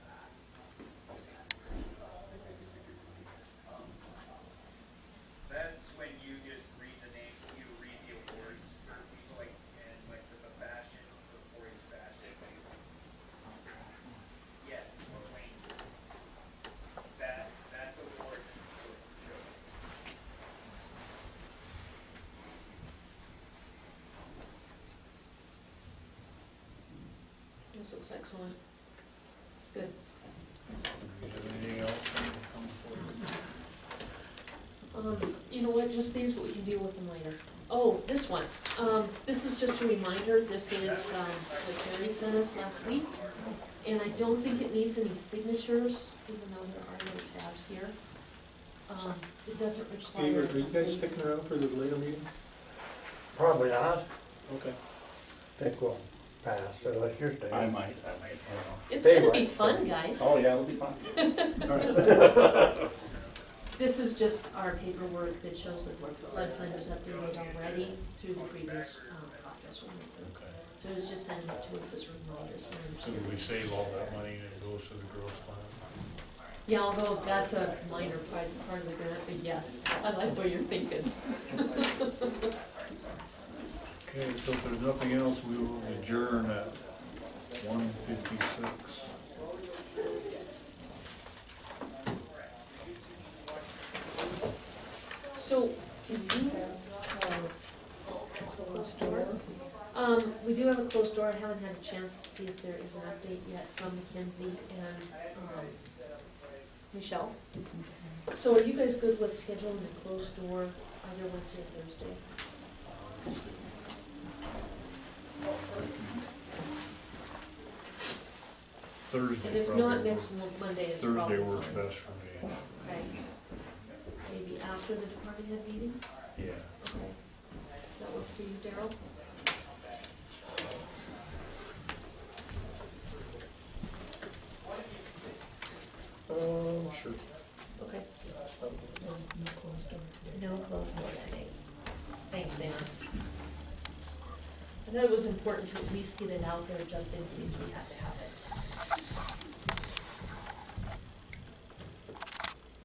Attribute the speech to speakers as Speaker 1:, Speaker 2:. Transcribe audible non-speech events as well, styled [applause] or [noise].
Speaker 1: This looks excellent. Good.
Speaker 2: You have anything else?
Speaker 1: Um, you know what, just these, we can deal with them later. Oh, this one, um, this is just a reminder, this is, um, what Terry sent us last week. And I don't think it needs any signatures, even though there are no tabs here. Um, it doesn't
Speaker 2: Steve,
Speaker 1: require.
Speaker 2: are you guys sticking around for the later meeting?
Speaker 3: Probably not.
Speaker 2: Okay.
Speaker 3: I think we'll pass unless you're
Speaker 4: I might, I
Speaker 3: staying.
Speaker 4: might, I don't
Speaker 1: It's
Speaker 3: They
Speaker 1: gonna be
Speaker 3: were.
Speaker 1: fun, guys.
Speaker 4: know. Oh, yeah, it'll be fine.
Speaker 2: All right.
Speaker 1: [laughs] This is just our paperwork that shows that we're flood plain was updated already through the previous, um, process we went through.
Speaker 2: Okay.
Speaker 1: So it's just sending it to us as reminders.
Speaker 2: So we save all that money and it goes to the growth plan?
Speaker 1: Yeah, although that's a minor part, part of the grant, but yes, I like what you're thinking.
Speaker 2: Okay, so if there's nothing else, we will adjourn at one fifty-six.
Speaker 1: So, can you, uh, closed door? Um, we do have a closed door, I haven't had a chance to see if there is an update yet from Mackenzie and, um, Michelle. So are you guys good with scheduling the closed door either Wednesday or Thursday? And
Speaker 2: Thursday
Speaker 1: if not,
Speaker 2: probably,
Speaker 1: next
Speaker 2: works-
Speaker 1: mo- Monday is probably
Speaker 2: Thursday works
Speaker 1: fine.
Speaker 2: best for me.
Speaker 1: Okay. Maybe after the department head meeting?
Speaker 2: Yeah.
Speaker 1: Okay. That work for you, Daryl?
Speaker 3: Um,
Speaker 2: Sure.
Speaker 1: Okay. No closed door today. Thanks, Anna. I thought it was important to at least get it out there just in case we had to have it.